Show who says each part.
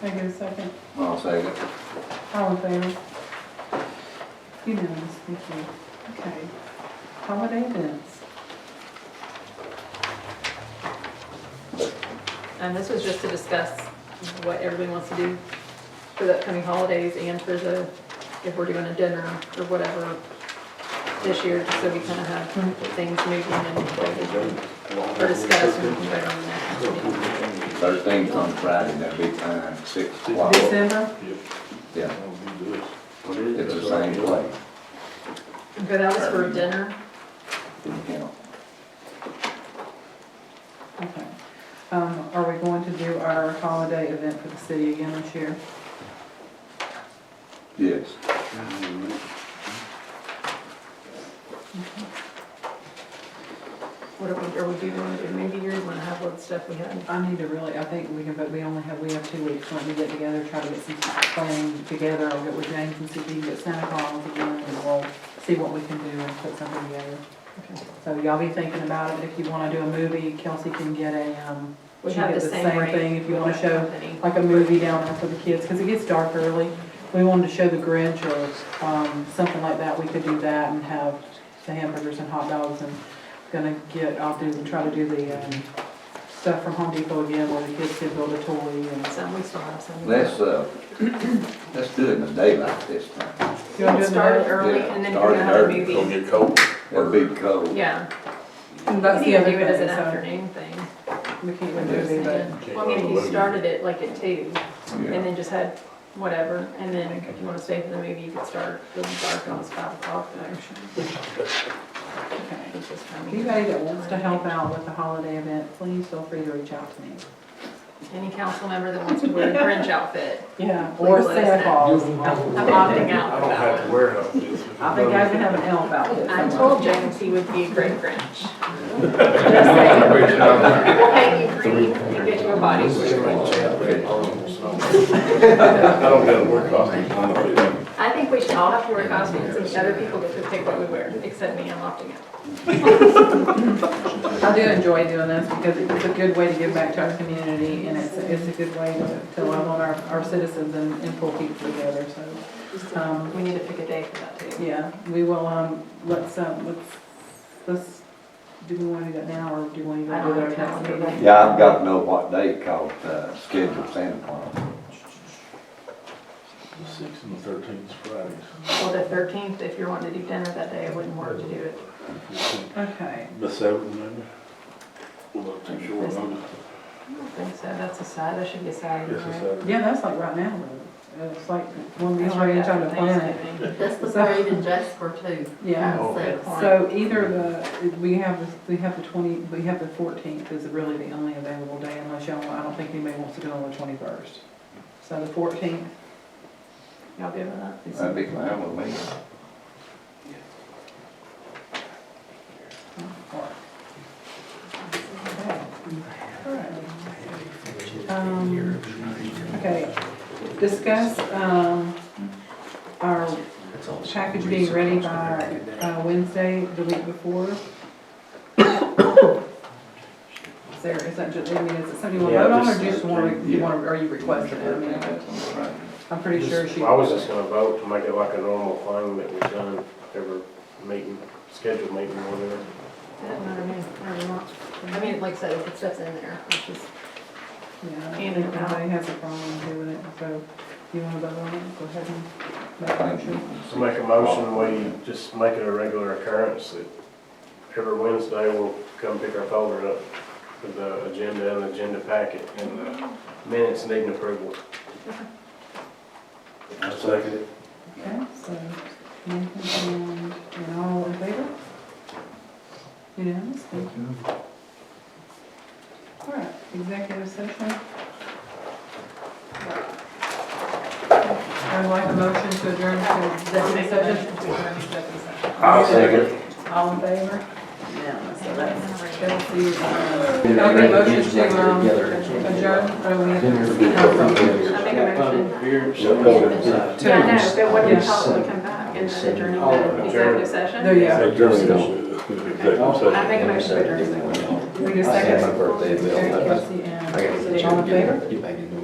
Speaker 1: Can I get a second?
Speaker 2: I'll second.
Speaker 1: All in favor? Unanimous, thank you. Okay. Holiday events.
Speaker 3: And Um, this was just to discuss what everybody wants to do for the upcoming holidays and for the, if we're doing a dinner or whatever this year, just so we kind of have
Speaker 1: Mhm.
Speaker 3: things moving and for discussing and vote on that.
Speaker 2: Thursday's on Friday, that'd be time, six o'clock.
Speaker 1: December?
Speaker 2: Yeah,
Speaker 4: What is
Speaker 2: it's the same place.
Speaker 3: But that was for dinner.
Speaker 2: Didn't count.
Speaker 1: Okay. Um, are we going to do our holiday event for the city again this year?
Speaker 2: Yes.
Speaker 3: What are we, are we doing, it maybe you want to have what stuff we had.
Speaker 1: I need to really, I think we can, but we only have, we have two weeks, let me get together, try to get some planning together, I'll get with James and see if he can get Santa Claus again, and we'll see what we can do and put something together.
Speaker 3: Okay.
Speaker 1: So y'all be thinking about it, if you wanna do a movie, Kelsey can get a, um,
Speaker 3: We
Speaker 1: She
Speaker 3: have
Speaker 1: did
Speaker 3: the
Speaker 1: the same
Speaker 3: same rate.
Speaker 1: thing, if you wanna
Speaker 3: with
Speaker 1: show-
Speaker 3: company.
Speaker 1: like a movie down there for the kids, cause it gets dark early. We wanted to show the Grinch or, um, something like that, we could do that and have the hamburgers and hot dogs and gonna get, I'll do, try to do the, um, stuff from Home Depot again, where the kids can build a toy and.
Speaker 3: Some we still have some.
Speaker 2: Let's, uh, let's do it in the daylight this time.
Speaker 1: You wanna do it in the
Speaker 3: Started
Speaker 1: night?
Speaker 3: early
Speaker 2: Yeah,
Speaker 3: and then
Speaker 2: started
Speaker 3: we're gonna have a
Speaker 2: early.
Speaker 4: Gonna
Speaker 3: movie.
Speaker 4: get cold.
Speaker 2: It'll be cold.
Speaker 3: Yeah.
Speaker 1: That's
Speaker 3: We
Speaker 1: the
Speaker 3: can
Speaker 1: other
Speaker 3: do it as
Speaker 1: thing,
Speaker 3: an
Speaker 1: so
Speaker 3: afternoon thing.
Speaker 1: we can't even do it, but
Speaker 3: Well, I mean, if you started it like at two, and
Speaker 2: Yeah.
Speaker 3: then just had whatever, and then if you wanna stay for the movie, you could start really dark on it's five o'clock, but actually,
Speaker 1: okay.
Speaker 3: it's just kind of.
Speaker 1: Anybody that wants to help out with the holiday event, please feel free to reach out to me.
Speaker 3: Any council member that wants to wear a fringe outfit,
Speaker 1: Yeah. Or
Speaker 3: Please let us
Speaker 1: Santa
Speaker 3: know.
Speaker 1: Claus.
Speaker 3: I'm opting
Speaker 4: I
Speaker 3: out for
Speaker 4: don't have
Speaker 3: that
Speaker 4: to
Speaker 3: one.
Speaker 4: wear it.
Speaker 1: I think I can have an elf outfit.
Speaker 3: I
Speaker 1: somewhere.
Speaker 3: told James he would be a great Grinch.
Speaker 4: I
Speaker 3: We'll pay you green, you get your body suit.
Speaker 4: don't have to wear costumes. I'm not doing it.
Speaker 3: I think we should all have to wear costumes, and other people get to pick what we wear, except me, I'm opting out.
Speaker 1: I do enjoy doing this because it's a good way to give back to our community and it's, it's a good way to to love on our, our citizens and, and pull people together, so. Um,
Speaker 3: We need to pick a day for that too.
Speaker 1: yeah, we will, um, let's, um, let's, let's, do we want to do that now or do we want to
Speaker 3: I
Speaker 1: go
Speaker 3: don't
Speaker 1: do that
Speaker 3: have
Speaker 1: next
Speaker 3: time.
Speaker 1: meeting?
Speaker 2: Yeah, I've got to know what day called, uh, scheduled Santa Claus.
Speaker 4: The Sixth and the thirteenth is Fridays.
Speaker 3: Well, the thirteenth, if you're wanting to do dinner that day, it wouldn't work to do it.
Speaker 1: Okay,
Speaker 4: The seventh, maybe? Well, I'm not too sure. about it.
Speaker 3: I don't think so, that's a Saturday, that should be a Saturday,
Speaker 4: It's a
Speaker 3: right?
Speaker 4: Saturday.
Speaker 1: yeah, that's like right now, though. it's like, when we try to try to plan it.
Speaker 5: That's the parade in Jasper too.
Speaker 1: Yeah,
Speaker 4: Oh, okay.
Speaker 1: so either the, we have, the we have the twenty, we have the fourteenth is really the only available day unless y'all, I don't think anybody wants to do it on the twenty-first. So the fourteenth,
Speaker 3: Y'all good with that?
Speaker 2: That'd be fine with me.
Speaker 1: or. Um, Okay, discuss, um, our package being ready by, uh, Wednesday, the week before. Is there, is that just, I mean, is it something you want to vote on or just want, you want, are you requesting it? I mean, I'm pretty sure she.
Speaker 6: Well, I was just gonna vote to make it like a normal thing that we've done every meeting, scheduled meeting or whatever.
Speaker 3: Doesn't matter to me, however you want. I mean, like I said, if it steps in there, it's just,
Speaker 1: Yeah, I don't think anybody has a problem doing it, so you want to vote on it, go ahead and make a motion.
Speaker 6: So make a motion, we just make it a regular occurrence that every Wednesday we'll come pick our folder up with the agenda and agenda packet and the minutes needing approval.
Speaker 4: I second it.
Speaker 1: Okay, so Nathan and, and all in favor? Unanimous, thank you. All right, executive session. I'd like a motion to adjourn to executive session.
Speaker 2: I'll second.
Speaker 1: All in favor? Yeah, so that's Chelsea. uh, Can I make a motion to, um, adjourn? Oh, we have to-
Speaker 3: I make a motion.
Speaker 1: To-
Speaker 3: Yeah, I know, but what do you
Speaker 1: Yes.
Speaker 3: call it, we come back and then adjourn
Speaker 7: Oh,
Speaker 3: the
Speaker 6: adjourn.
Speaker 3: executive session?
Speaker 1: There you go.
Speaker 3: I make a motion to adjourn the executive session.
Speaker 7: My birthday, Bill.
Speaker 1: All in favor?
Speaker 7: You back in.